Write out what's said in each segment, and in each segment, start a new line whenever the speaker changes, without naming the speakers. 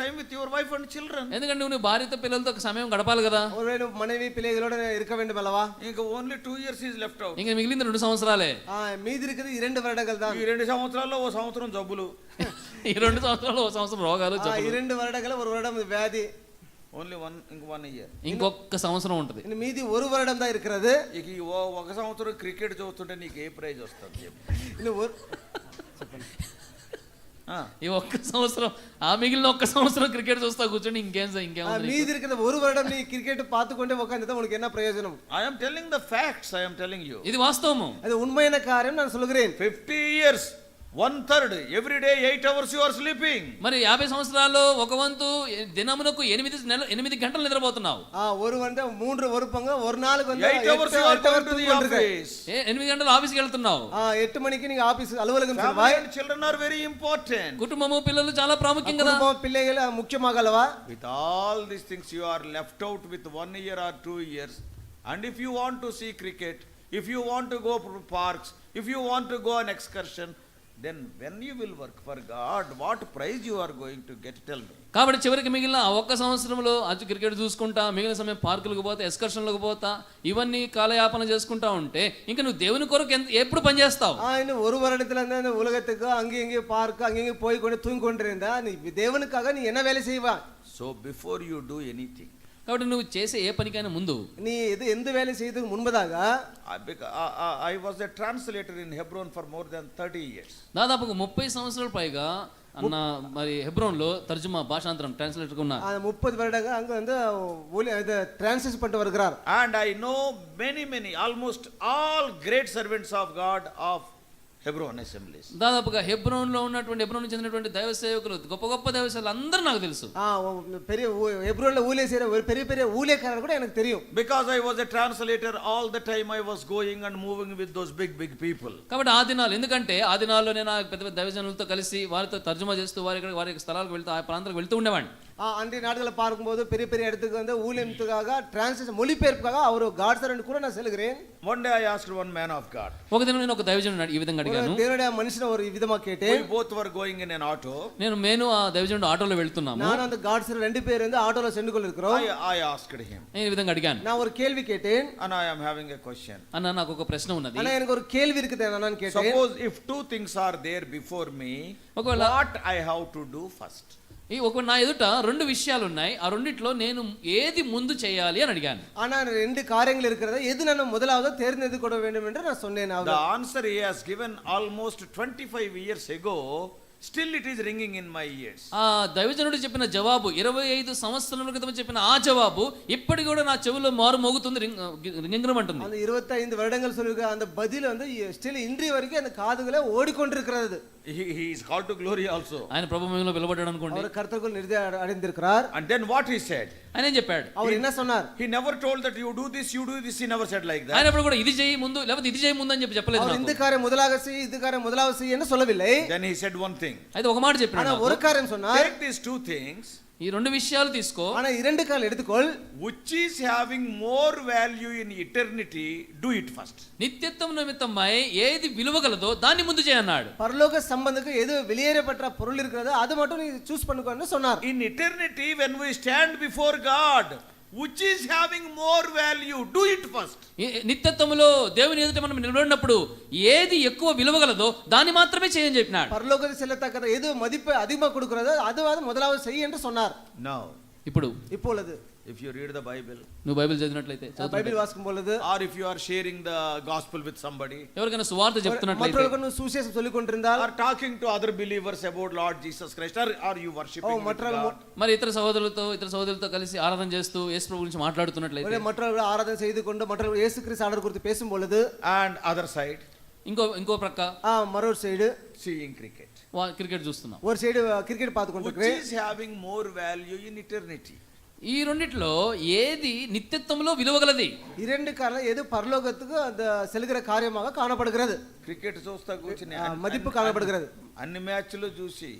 time with your wife and children.
ఎందుకంటే నువ్వు నీ భార్యతో పిల్లలతో ఒక సమయం గడపాలి కదా
ஒருவேளை மனைவி பிள்ளைகளோட இருக்க வேண்டும் அல்லவா
ఇంక only two years is left out.
ఇంక మిగిలింది రెండు సంవత్సరాలే
ஆ, மீதி இருக்கிறது இரண்டு வருடங்கள் தான்
ఈ రెండు సంవత్సరాల్లో ఓ సంవత్సరం జబ్బులు
ఈ రెండు సంవత్సరాలు ఒక సంవత్సరం రోగాలు
ஆ,
జబ్బులు.
இரண்டு வருடங்கள் ஒரு வருடம் வியாதி
ఓన్లీ వన్ ఇంక వన్ ఇయర్
ఇంకొక సంవత్సరం ఉంటుంది
இன்னும் மீதி ஒரு வருடம் தான் இருக்கிறது
ఇక ఈ ఓ ఒక సంవత్సరం క్రికెట్ చూస్తుంటే నీకు ఏ ప్రైజ్ వస్తుంది చెప్పు.
இன்னும் ஒரு
ఆ,
ఈ ఒక్క సంవత్సరం ఆ మిగిలిన ఒక్క సంవత్సరం క్రికెట్ చూస్తా కూర్చొని ఇంకేం సార్, ఇంకేం
ஆ, மீதி இருக்கிற ஒரு வருடம் நீ கிரிக்கெட் பார்த்து கொண்டே உட்காந்துதான் உனக்கு என்ன பிரயோஜனம்
I am telling the facts, I am telling you.
ఇది వాస్తవము
அது ఉన్మైన కార్యం నేను సొలుగురేన్
fifty years one third every day eight hours you are sleeping
మరి యాభై సంవత్సరాల్లో ఒక వంతు ఎ- దినమునకు ఎనిమిది నెల ఎనిమిది గంటలు నిద్రపోతున్నావు
ஆ, ஒரு வந்து மூன்று ஒரு பங்கு ஒரு நாளுக்கு வந்து
ఎయిట్
எட்டு-
అవర్స్ యు ఆర్
எட்டு hours
గోయింగ్ టు ది
தூக்கம் இருக்கு.
ఆఫీస్
ఏ, ఎనిమిది గంటలు ఆఫీస్కి వెళ్తున్నావు
ஆ, எட்டு மணிக்கு நீங்க ஆபீஸ் அலுவலகம்
ఫ్యామిలీ
செல்வாய்
and children are very important
కుటుంబము పిల్లలు చాలా ప్రాముఖ్యం కదా
குடும்பம் பிள்ளைகள் அது முக்கியமாக அல்லவா
with all these things you are left out with one year or two years and if you want to see cricket if you want to go parks if you want to go on excursion then when you will work for God what prize you are going to get tell me
కాబట్టి చివరికి మిగిలిన ఆ ఒక్క సంవత్సరంలో అటు cricket చూసుకుంటా మిగిలిన సమయం పార్కులకు పోతా ఎక్స్కర్షన్లకు పోతా ఇవన్నీ కాలయాపన చేసుకుంటా ఉంటే ఇంకా నువ్వు దేవుని కొరకు ఎంత ఎప్పుడు పనిచేస్తావు
ஆ, இன்னும் ஒரு வருடத்துல இருந்து அந்த உலகத்துக்கு அங்கேயும் இங்கேயும் பார்க்க அங்கேயும் போய் கொண்டு தூங்கி கொண்டிருந்தா நீ தேவனுக்காக நீ என்ன வேலை செய்வா
so before you do anything
కాబట్టి నువ్వు చేసే ఏ పనికైనా ముందు
நீ எது எந்த வேலை செய்யறதுக்கு முன்பதாக
I was a translator in Hebron for more than thirty years
దాదాపు ఒక ముప్పై సంవత్సరాల పైగా అన్న మరి హెబ్రోన్లో తర్జుమా భాషాంతరం ట్రాన్స్లేటర్గా ఉన్నారు
அந்த முப்பது வருடங்க அங்க வந்து ஊழிய- இது டிரான்ஸ்லேட் பண்ணிட்டு வருகிறார்
And I know many, many, almost all great servants of God of Hebron assemblies.
దాదాపుగా హెబ్రోన్లో ఉన్నటువంటి హెబ్రోన్ చెందినటువంటి దైవ సేవకులు గొప్ప గొప్ప దైవ సేవలు అందరూ నాకు తెలుసు
ஆ, ஒ- பெரிய எப்ரோல ஊழிய செய்யற ஒரு பெரிய பெரிய ஊழியக்காரர் கூட எனக்கு தெரியும்
Because I was a translator, all the time I was going and moving with those big, big people.
కాబట్టి ఆ దినాలు ఎందుకంటే ఆ దినాల్లో నేను ఆ పెద్ద పెద్ద దైవజనులతో కలిసి వారితో తర్జుమా చేస్తూ వారి యొక్క- వారి యొక్క స్థలాలకు వెళ్తూ ఆ ప్రాంతాలకు వెళ్తూ ఉండేవాడిని
ஆ, அன்றைய நாடுகளை பார்க்கும்போது பெரிய பெரிய இடத்துக்கு வந்து ஊழியத்துக்காக டிரான்ஸ்லேஷன் மொழிபெயர்ப்புக்காக அவர் காட்சரன் கூட நான் செல்கிறேன்
One day I asked one man of God.
ఒక దినం నేను ఒక దైవజనుడు ఈ విధంగా
ஒரு
అడిగాను
தேவனுடைய மனுஷனை ஒரு விதமா கேட்டேன்
We both were going in an auto.
నేను నేను ఆ దైవజనుడు ఆటోలో వెళ్తున్నాము
நானும் அந்த காட்சர் ரெண்டு பேர் வந்து ஆட்டோல சென்று கொண்டிருக்கிறோம்
I, I asked him,
నేను ఈ విధంగా అడిగాను
நான் ஒரு கேள்வி கேட்டேன்
and I am having a question.
అన్న నాకు ఒక ప్రశ్న ఉన్నది
ஆனா எனக்கு ஒரு கேள்வி இருக்குது என்னன்னு கேட்டேன்
Suppose if two things are there before me,
ఒకవేళ
what I have to do first?
ఈ ఒక నా ఎదుట రెండు విషయాలు ఉన్నాయి ఆ రెండిట్లో నేను ఏది ముందు చేయాలి అని అడిగాను
ஆனா ரெண்டு காரியங்கள் இருக்கிறது எது நான் முதலாவது தேர்ந்தெடுத்து கொள்ள வேண்டும் என்று நான் சொன்னேன்
The
our
answer he has given almost 25 years ago, still it is ringing in my ears.
ఆ దైవజనుడు చెప్పిన జవాబు ఇరవై ఐదు సంవత్సరాల క్రితం చెప్పిన ఆ జవాబు ఇప్పటికి కూడా నా చెవిలో మారు మోగుతుంది రింగరం అంటుంది
அந்த 25 வருடங்கள் சொல்லியிருக்க அந்த பதில் வந்து ஸ்டில் இன்றைய வரைக்கும் அந்த காதுகளை ஓடிக்கொண்டிருக்கிறது
He, he is called to glory also.
ఆయన ప్రభుత్వంలో పిలబడ్డాడు అనుకోండి
அவர் கருத்தருக்குள் நிறுதி அடைந்திருக்கிறார்
And then what he said?
ఆయన ఏం చెప్పాడు
அவர் என்ன சொன்னார்
He never told that you do this, you do this. He never said like that.
ఆయన ఎప్పుడు కూడా ఇది చేయి ముందు లేకపోతే ఇది చేయి ముందు అని చెప్పి చెప్పలేదు
அவர்
నాకు.
இந்த காரியம் முதலாக செய் இந்த காரியம் முதலாக செய் என்று சொல்லவில்லை
Then he said one thing.
అయితే ఒక మాట చెప్పాడు
ஆனா
నాకు.
ஒரு காரியம் சொன்னார்
Take these two things.
ఈ రెండు విషయాలు తీసుకో
ஆனா இரண்டு கால் எடுத்துக்கொள்
Which is having more value in eternity, do it first.
నిత్యత్వం నిమిత్తమై ఏది విలువ గలదో దాన్ని ముందు చేయన్నాడు
பரலோக சம்பந்தத்துக்கு எது வெளியேறப்பட்ட பொருள் இருக்கிறதோ அது மட்டும் நீ சூஸ் பண்ணுக்கோன்னு சொன்னார்
In eternity, when we stand before God, which is having more value, do it first.
ఈ- నిత్యత్వములో దేవుని ఎదుట మనం నిలబడినప్పుడు ఏది ఎక్కువ విలువ గలదో దాన్ని మాత్రమే చేయని చెప్పినాడు
பரலோகத்தில் செல்லத்தக்கத எது மதிப்பு அதிகமாக கொடுக்கிறதோ அதுவாது முதலாவது செய் என்று சொன்னார்
Now,
ఇప్పుడు
இப்பொழுது
if you read the Bible,
నువ్వు బైబిల్ చదివినట్లయితే చదువు.
பைபிள் வாசிக்கும் பொழுது
or if you are sharing the gospel with somebody,
ఎవరికైనా సువార్త చెప్తున్నట్లయితే
மற்றவர்களுக்கு நீ சுவிசேஷம் சொல்லிக் கொண்டிருந்தால்
or talking to other believers about Lord Jesus Christ, or are you
O,
worshiping with
மற்றவர்கள்
God?
మరి ఇతర సహోదరులతో ఇతర సహోదరులతో కలిసి ఆరాధన చేస్తూ యేసు ప్రభు గురించి మాట్లాడుతున్నట్లయితే
ஒருவேளை மற்றவர்கள் ஆராதனை செய்து கொண்டு மற்றவர்கள் இயேசு கிறிஸ்து ஆர்டர் குறித்து பேசும் பொழுது
And other side,
ఇంకో ఇంకో ప్రక్క
ஆ, మరో సైடு
seeing cricket.
వా- క్రికెట్ చూస్తున్నాం
ஒரு సைடு கிரிக்கெட் பார்த்து
Which
கொண்டிருக்கிறேன்
is having more value in eternity?
ఈ రెండిట్లో ఏది నిత్యత్వంలో విలువ గలది
இரண்டு காரணம் எது பரலோகத்துக்கு அந்த செல்கிற காரியமாக కాణப்படுகிறது
క్రికెట్ చూస్తా కూర్చుని
ఆ,
అన్ని-
మదింపు
అన్ని-
కానబడగలదు.
అన్ని- అన్ని మ్యాచ్లు చూసి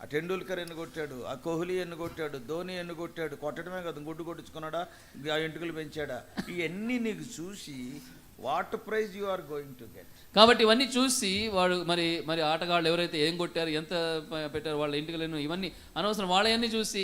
ఆ టెండూల్కర్ ఎన్ని కొట్టాడు ఆ కోహ్లీ ఎన్ని కొట్టాడు ధోని ఎన్ని కొట్టాడు కొట్టడమే కదా గుడ్డు కొట్టించుకున్నాడా ఆ ఎంటుకలు పెంచాడా ఇవన్నీ నీకు చూసి what prize you are going to get
కాబట్టి ఇవన్నీ చూసి వాడు మరి మరి ఆటగాళ్ళు ఎవరైతే ఏం కొట్టారు ఎంత ప- పెట్టారు వాళ్ళ ఇంటికి లేను ఇవన్నీ అనవసరం వాళ్ళ అన్నీ చూసి